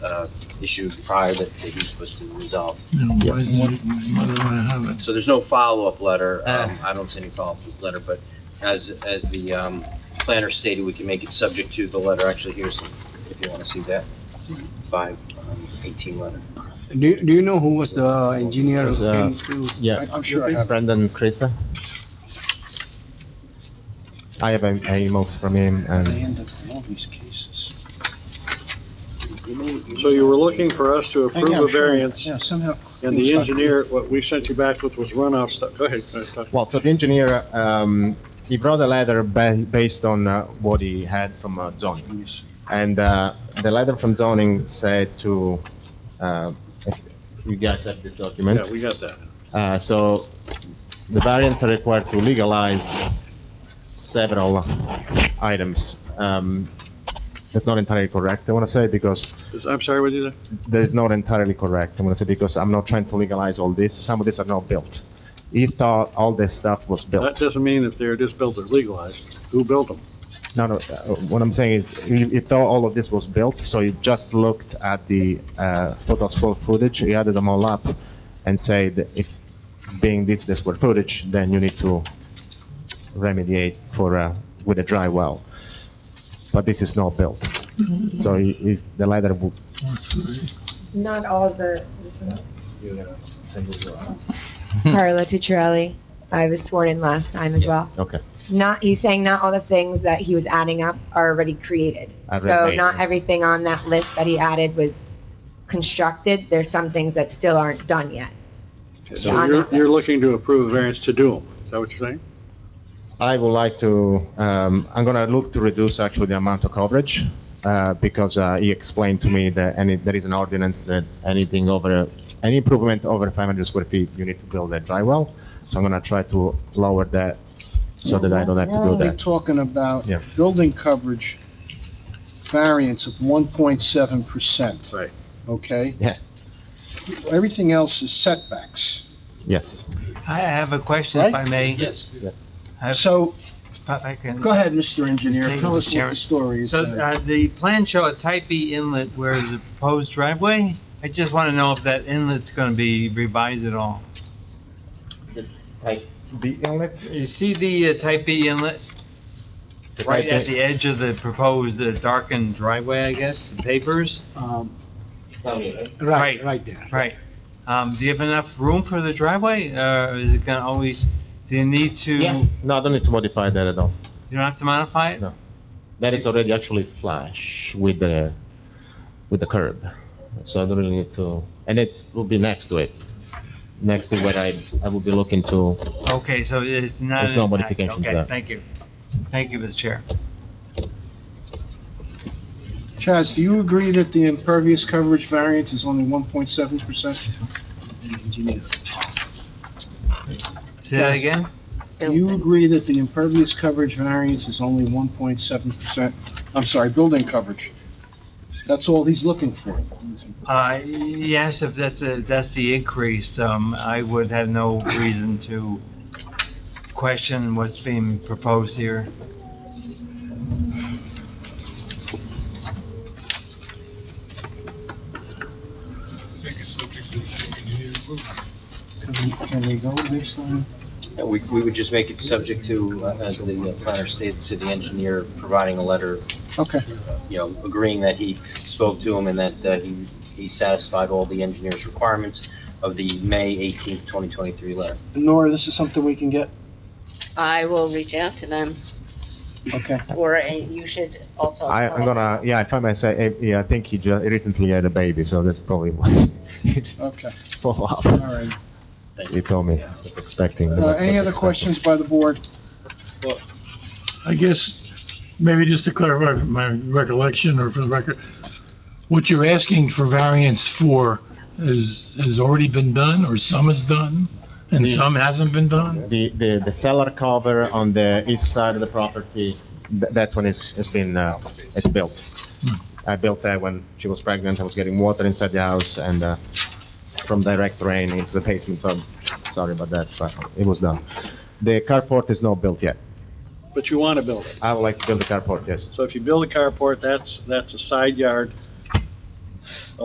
uh, issue prior that that he was supposed to resolve. You know, why Yes. didn't, why didn't I have it? So there's no follow-up letter, um, I don't see any follow-up letter, but as, as the, um, planner stated, we can make it subject to the letter, actually, here's, the- if you wanna see that, five, um, eighteen letter. Do, you- do you know who was the engineer It was, who uh, came to? Yeah, I- I'm sure I have it. Brendan Creaser. I have em- emails from him and So you were looking for us to Uh, Yeah, approve I'm sure a I- variance, Yeah, somehow. and the engineer, what we sent you back with was runoff stuff. Go ahead. uh, Dr. well, so the engineer um, he brought a letter ba- based on uh, what he had from uh, zoning, and uh, the letter from zoning said to uh, if you guys have this document. Yeah, we got that. Uh, so the variants are required to legalize several items. Um, that's not entirely correct. I want to say because Is- I'm sorry, what did you say? that is not entirely correct. I'm going to say because I'm not trying to legalize all this. Some of these are not built. He thought all this stuff was That built. doesn't mean if they're just built or legalized. Who built them? No, no. Uh, what I'm saying is he, he thought all of this was built, so he just looked at the uh, total square footage. He added them all up and said, if being this the square footage, then you need to remediate for uh, with a dry well. But this is not built, so he, he, the letter would. Or three. Not all of the, this one. Okay. Hmm. Carla Tucciarelli. I was sworn in last time as well. Not, he's saying not all the things that he was adding up are already created. I read So that. not everything on that list that he added was constructed. There's some things that still aren't done yet. So you're, you're looking to approve a variance to do them. Is that what you're saying? I would like to, um, I'm gonna look to reduce actually the amount of coverage, uh, because, uh, he explained to me that any, there is an ordinance that anything over, any improvement over five hundred square feet, you need to build a dry well. So I'm gonna try to lower that so that I don't have to do We're only that. talking about Yeah. building coverage variance of 1.7 percent. Right. Okay? Yeah. Everything else is setbacks. Yes, I have a question, if I Right? may. yes. I- So, if I can. go ahead, Mr. Engineer, Thank you, tell us what Mr. the Chairman. story is. So, now. uh, the plans show a type B inlet where is a proposed driveway. I just want to know if that inlet's going to be revised at all. The inlet? You see the uh, type B inlet right at the edge of the proposed uh, darkened driveway, I guess, the papers? uh, Um, Right, right there. Right. Um, do you have enough room for the driveway, or is it going to always, do you need to, Yeah, you no, I don't need to modify that at all. don't have to modify it? No. That is already actually flush with the, with the curb. So I don't really need to, and it will be next to it, next to what I, I will be looking to. Okay, so it's not. There's an no impact. modification to Okay, that. thank you. Thank you, Mr. Chair. Chaz, do you agree that the impervious coverage variance is only 1.7 percent? Say that again? Do you agree that the impervious coverage variance is only 1.7 percent? I'm sorry, building coverage. That's all he's looking for. Uh, yes, if that's, a- that's the increase, um, I would have no reason to question what's being proposed here. Can we- Can we go next line? And we, we would just make it subject to, uh, as the planner stated, to the engineer providing a letter, Okay. you know, agreeing that he spoke to him and that, uh he, he satisfied all the engineer's requirements of the May eighteenth, twenty twenty-three letter. Nora, this is something we can get? I will reach out to them, Okay. or uh, you should also. I, I'm gonna, yeah, if I may say, eh, yeah, I think he just recently had a baby, so that's probably why. Okay, Follow up. all right. He told me, I was expecting. but Uh, I Any was other expecting. questions by the board? I guess, maybe just to clarify from my recollection or for the record, what you're asking for variance for is, has already been done, or some is done, and some hasn't been done? The, the, the cellar cover on the east side of the property, th- that one is, has been, uh, it's built. Hmm. I built that when she was pregnant, I was getting water inside the house and, uh, from direct rain into the basement, so I'm sorry about that, but it was done. The carport is not built yet. But you want to build it. I would like to build the carport, yes. So if you build a carport, that's, that's a side yard